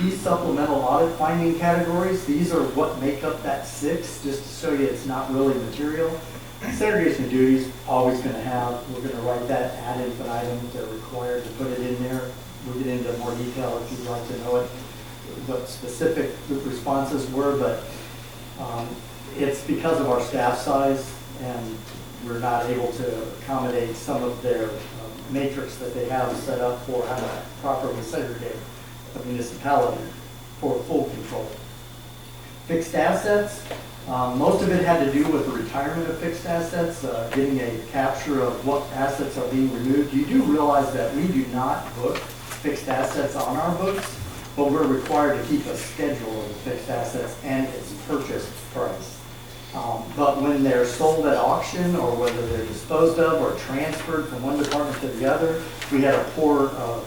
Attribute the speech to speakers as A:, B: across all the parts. A: these supplemental audit finding categories, these are what make up that six, just to show you it's not really material. Segregation of duties, always gonna have, we're gonna write that ad infinitum, they're required to put it in there. We'll get into more detail if you'd like to know it, what specific the responses were, but um, It's because of our staff size, and we're not able to accommodate some of their um, matrix that they have set up for how to properly segregate a municipality for full control. Fixed assets, um, most of it had to do with the retirement of fixed assets, uh, getting a capture of what assets are being removed. You do realize that we do not book fixed assets on our books, but we're required to keep a schedule of the fixed assets and its purchase price. Um, But when they're sold at auction, or whether they're disposed of or transferred from one department to the other, we had a poor uh,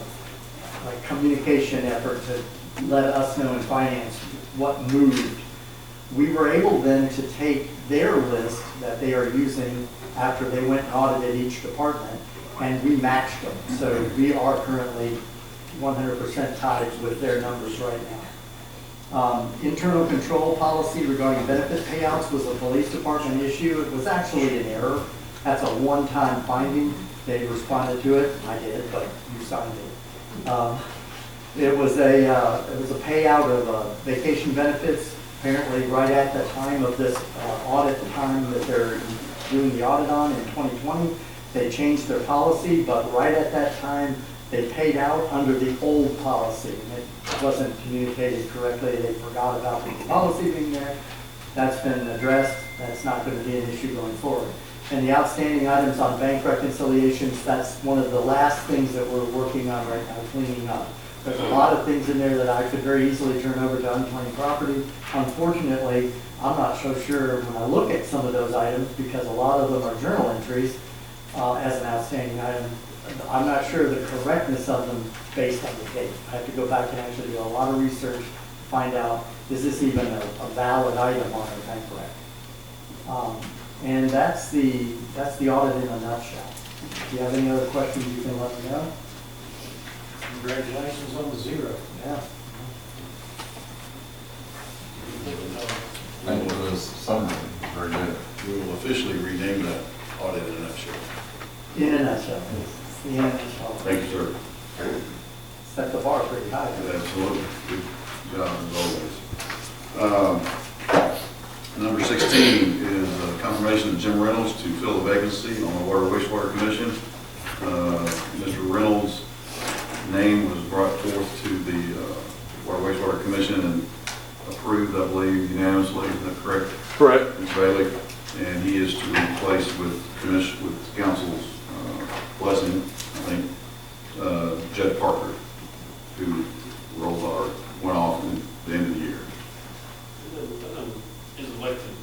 A: like communication effort to let us know in finance what moved. We were able then to take their list that they are using after they went and audited each department, and we matched them. So we are currently one hundred percent tied with their numbers right now. Um, Internal control policy regarding benefit payouts was a police department issue. It was actually an error. That's a one-time finding. They responded to it. I did, but you signed it. Um, It was a, uh, it was a payout of uh, vacation benefits, apparently right at the time of this uh, audit, the time that they're doing the audit on in 2020. They changed their policy, but right at that time, they paid out under the old policy. and It wasn't communicated correctly, they forgot about the policy being there. That's been addressed, that's not going to be an issue going forward. And the outstanding items on bank reconciliations, that's one of the last things that we're working on right now, cleaning up. There's a lot of things in there that I could very easily turn over to unclaimed property. Unfortunately, I'm not so sure when I look at some of those items, because a lot of them are journal entries uh, as an outstanding item. I'm not sure the correctness of them based on the date. I have to go back and actually do a lot of research, find out, is this even a a valid item on a bank record? Um, And that's the, that's the audit in a nutshell. If you have any other questions, you can let me know.
B: Congratulations on the zero.
A: Yeah.
C: That was summary, very good.
D: We will officially rename that audit in a nutshell.
A: In a nutshell, it's the in a nutshell.
D: Thank you, sir.
A: Set the bar pretty high.
D: Absolutely. Good job as always. Um, Number 16 is uh, confirmation of Jim Reynolds to fill the vacancy on the Water Wastewater Commission. Uh, Mr. Reynolds' name was brought forth to the uh, Water Wastewater Commission and approved, I believe, unanimously. Is that correct?
E: Correct.
D: Ms. Bailey, and he is to replace with commission, with council's uh, blessing, I think, uh, Jed Parker, who rolled our, went off at the end of the year.
F: Is elected,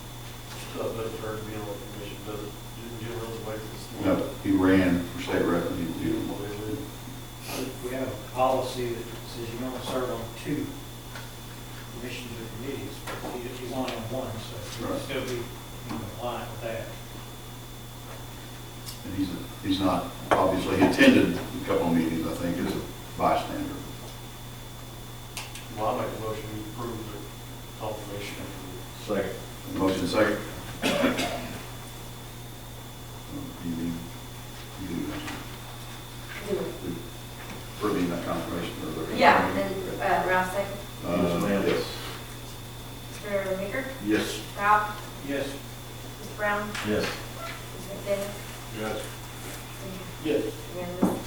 F: uh, but it's hard to be on the commission, but you get real elected.
D: No, he ran for state rep, and he, he-
B: We have a policy that says you don't serve on two commissions or committees, but you- you're only on one, so you
D: Right.
B: still be in compliance with that.
D: and he's, he's not, obviously, he attended a couple of meetings, I think, as a bystander.
F: Well, I make a motion to approve the confirmation.
D: Second. Motion second. You do, you do. Further in that confirmation. or the-
G: Yeah, and uh, Ralph second.
D: Uh, yes.
G: Mr. Maker?
D: Yes.
G: Ralph?
B: Yes,
G: Mr. Brown?
C: Yes.
G: Mr. McDaniel?
F: Yes. Yes.
G: Unanimous.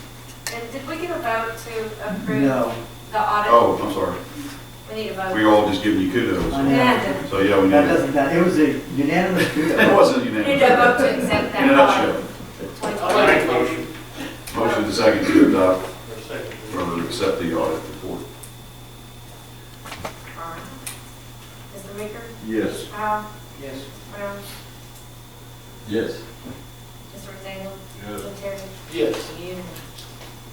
G: And did we get a vote to approve
A: No.
G: the audit?
D: Oh, I'm sorry.
G: We need a vote.
D: We were all just giving you
A: I
D: kudos.
A: know.
G: Yeah.
D: So, yeah, we
A: That
D: need,
A: doesn't, that, it was a unanimous.
D: it wasn't
G: We need a vote
D: unanimous.
G: to accept that.
D: In a nutshell,
G: audit.
F: I make a motion,
D: motion to second to adopt
F: or second.
D: or accept the audit report.
G: All right. Mr. Maker?
D: Yes.
G: Ralph?
B: yes.
G: Brown?
C: Yes.
G: Mr. McDaniel?
F: Yes.
G: Jim Terry?
F: Yes.
G: Unanimous.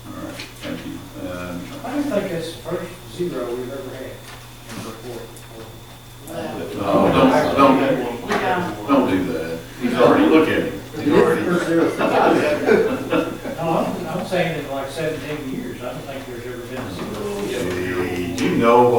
D: All right, thank you. And
B: I don't think that's the first zero we've ever had in the report.
D: No, uh, don't, don't, don't do that. He's already, look at him. He's already,
B: No, I'm, I'm saying in like seventeen years, I don't think there's ever been a zero.
D: Hey, do you know what